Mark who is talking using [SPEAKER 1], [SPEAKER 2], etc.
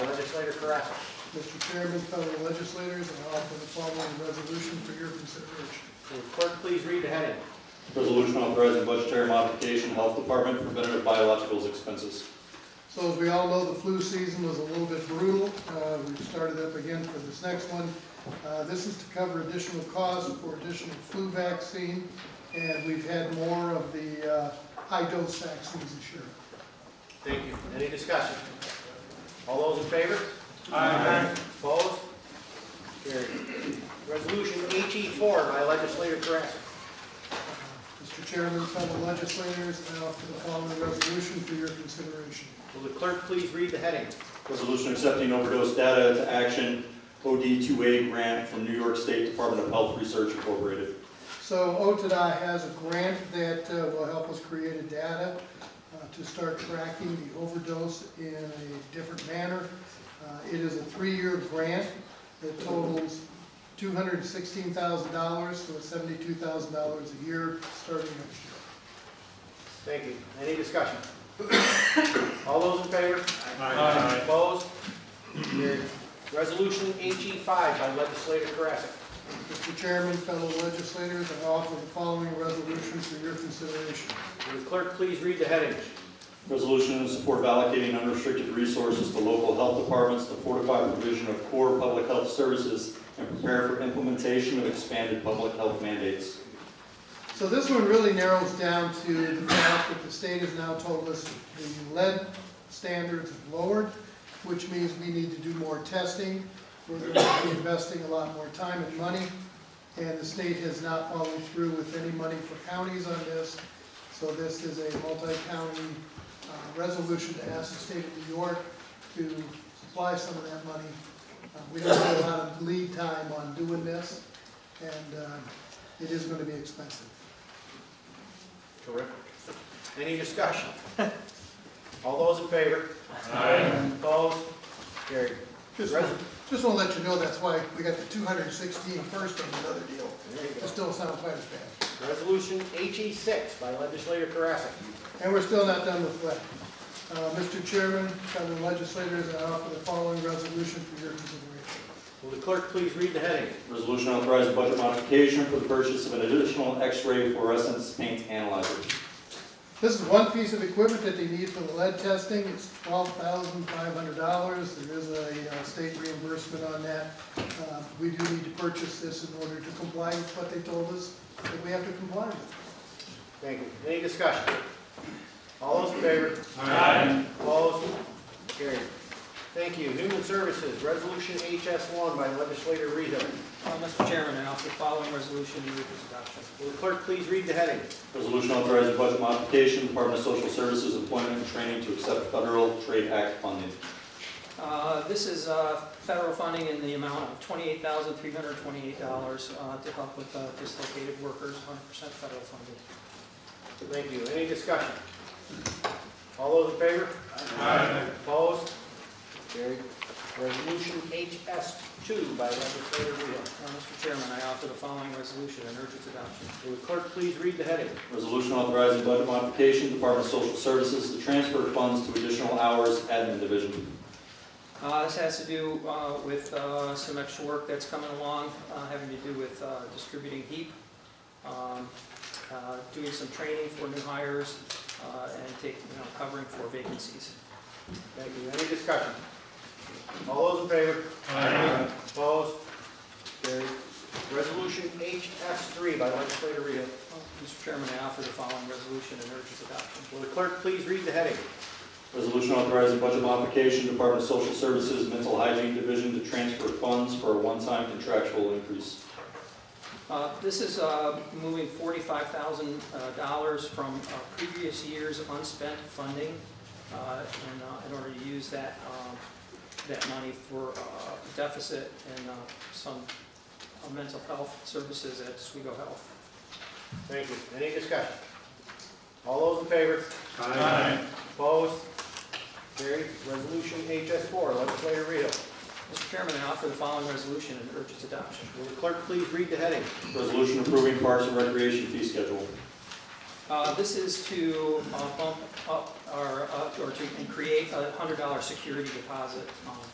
[SPEAKER 1] Legislator Carrasco.
[SPEAKER 2] Mr. Chairman, fellow legislators, I offer the following resolution for your consideration.
[SPEAKER 1] Will the clerk please read the heading?
[SPEAKER 3] Resolution authorizing budgetary modification, Health Department preventative biologicals expenses.
[SPEAKER 2] So as we all know, the flu season was a little bit brutal. Uh, We've started up again for this next one. Uh, This is to cover additional costs for additional flu vaccine, and we've had more of the uh, high-dose vaccines this year.
[SPEAKER 1] Thank you. Any discussion? All those in favor? Aye. Opposed? Carried. Resolution HE four by legislator Carrasco.
[SPEAKER 2] Mr. Uh, Chairman, fellow legislators, I offer the following resolution for your consideration.
[SPEAKER 1] Will the clerk please read the heading?
[SPEAKER 3] Resolution accepting overdose data to action OD2A grant from New York State Department of Health Research Incorporated.
[SPEAKER 2] So OTDI has a grant that uh, will help us create a data uh, to start tracking the overdose in a different manner. Uh, It is a three-year grant that totals $216,000, so it's $72,000 a year starting next year.
[SPEAKER 1] Thank you. Any discussion? All those in favor?
[SPEAKER 4] Aye.
[SPEAKER 1] Opposed? Carried. Resolution HE five by legislator Carrasco.
[SPEAKER 2] Mr. Chairman, fellow legislators, I offer the following resolution for your consideration.
[SPEAKER 1] Will the clerk please read the heading?
[SPEAKER 3] Resolution in support of allocating unrestricted resources to local health departments to fortify provision of core public health services and prepare for implementation of expanded public health mandates.
[SPEAKER 2] So this one really narrows down to the fact that the state has now told us the lead standards have lowered, which means we need to do more testing. We're going to be investing a lot more time and money, and the state has not followed through with any money for counties on this. So this is a multi-county uh, resolution to ask the state of New York to supply some of that money. Uh, We don't have a lot of lead time on doing this, and uh, it is going to be expensive.
[SPEAKER 1] Terrific. Any discussion? All those in favor?
[SPEAKER 4] Aye.
[SPEAKER 1] Opposed? Carried.
[SPEAKER 2] Just,
[SPEAKER 1] Right.
[SPEAKER 2] just want to let you know, that's why we got the 216 first on another deal.
[SPEAKER 1] There you
[SPEAKER 2] It
[SPEAKER 1] go.
[SPEAKER 2] still sounds quite as bad.
[SPEAKER 1] Resolution HE six by legislator Carrasco.
[SPEAKER 2] And we're still not done with lead. Uh, Mr. Chairman, fellow legislators, I offer the following resolution for your consideration.
[SPEAKER 1] Will the clerk please read the heading?
[SPEAKER 3] Resolution authorizing budget modification for the purchase of an additional X-ray fluorescence paint analyzer.
[SPEAKER 2] This is one piece of equipment that they need for the lead testing, it's twelve thousand five hundred dollars, there is a uh, state reimbursement on that. Uh, We do need to purchase this in order to comply with what they told us that we have to comply with.
[SPEAKER 1] Thank you. Any discussion? All those in favor?
[SPEAKER 4] Aye.
[SPEAKER 1] Opposed? Carried. Thank you. Human Services, Resolution HS one by legislator Rehale.
[SPEAKER 5] Uh, Mr. Chairman, I offer the following resolution, move its adoption.
[SPEAKER 1] Will the clerk please read the heading?
[SPEAKER 3] Resolution authorizing budget modification, Department of Social Services Employment and Training to accept Federal Trade Act funding.
[SPEAKER 5] Uh, This is uh, federal funding in the amount of $28,328 uh, to help with uh, dislocated workers, 100% federal funded.
[SPEAKER 1] Thank you. Any discussion? All those in favor?
[SPEAKER 4] Aye.
[SPEAKER 1] Opposed? Carried. Resolution HS two by legislator Rehale.
[SPEAKER 5] Uh, Mr. Chairman, I offer the following resolution and urge its adoption.
[SPEAKER 1] Will the clerk please read the heading?
[SPEAKER 3] Resolution authorizing budget modification, Department of Social Services to transfer funds to additional hours admin division.
[SPEAKER 5] Uh, This has to do uh, with uh, some extra work that's coming along, uh, having to do with uh, distributing heat, um, uh, doing some training for new hires, uh, and take, you know, covering for vacancies.
[SPEAKER 1] Thank you. Any discussion? All those in favor?
[SPEAKER 4] Aye.
[SPEAKER 1] Opposed? Carried. Resolution HS three by legislator Rehale.
[SPEAKER 5] Mr. Chairman, I offer the following resolution and urge its adoption.
[SPEAKER 1] Will the clerk please read the heading?
[SPEAKER 3] Resolution authorizing budget modification, Department of Social Services Mental Hygiene Division to transfer funds for a one-time contractual increase.
[SPEAKER 5] Uh, This is uh, moving $45,000 from uh, previous year's unspent funding uh, in uh, in order to use that, um, that money for uh, deficit and uh, some uh, mental health services at Sligo Health.
[SPEAKER 1] Thank you. Any discussion? All those in favor? Opposed? Carried. Resolution HS four, legislator Rehale.
[SPEAKER 5] Mr. Chairman, I offer the following resolution and urge its adoption.
[SPEAKER 1] Will the clerk please read the heading?
[SPEAKER 3] Resolution approving Parks and Recreation fee schedule.
[SPEAKER 5] Uh, This is to uh, bump up our, up- or to create a $100 security deposit um,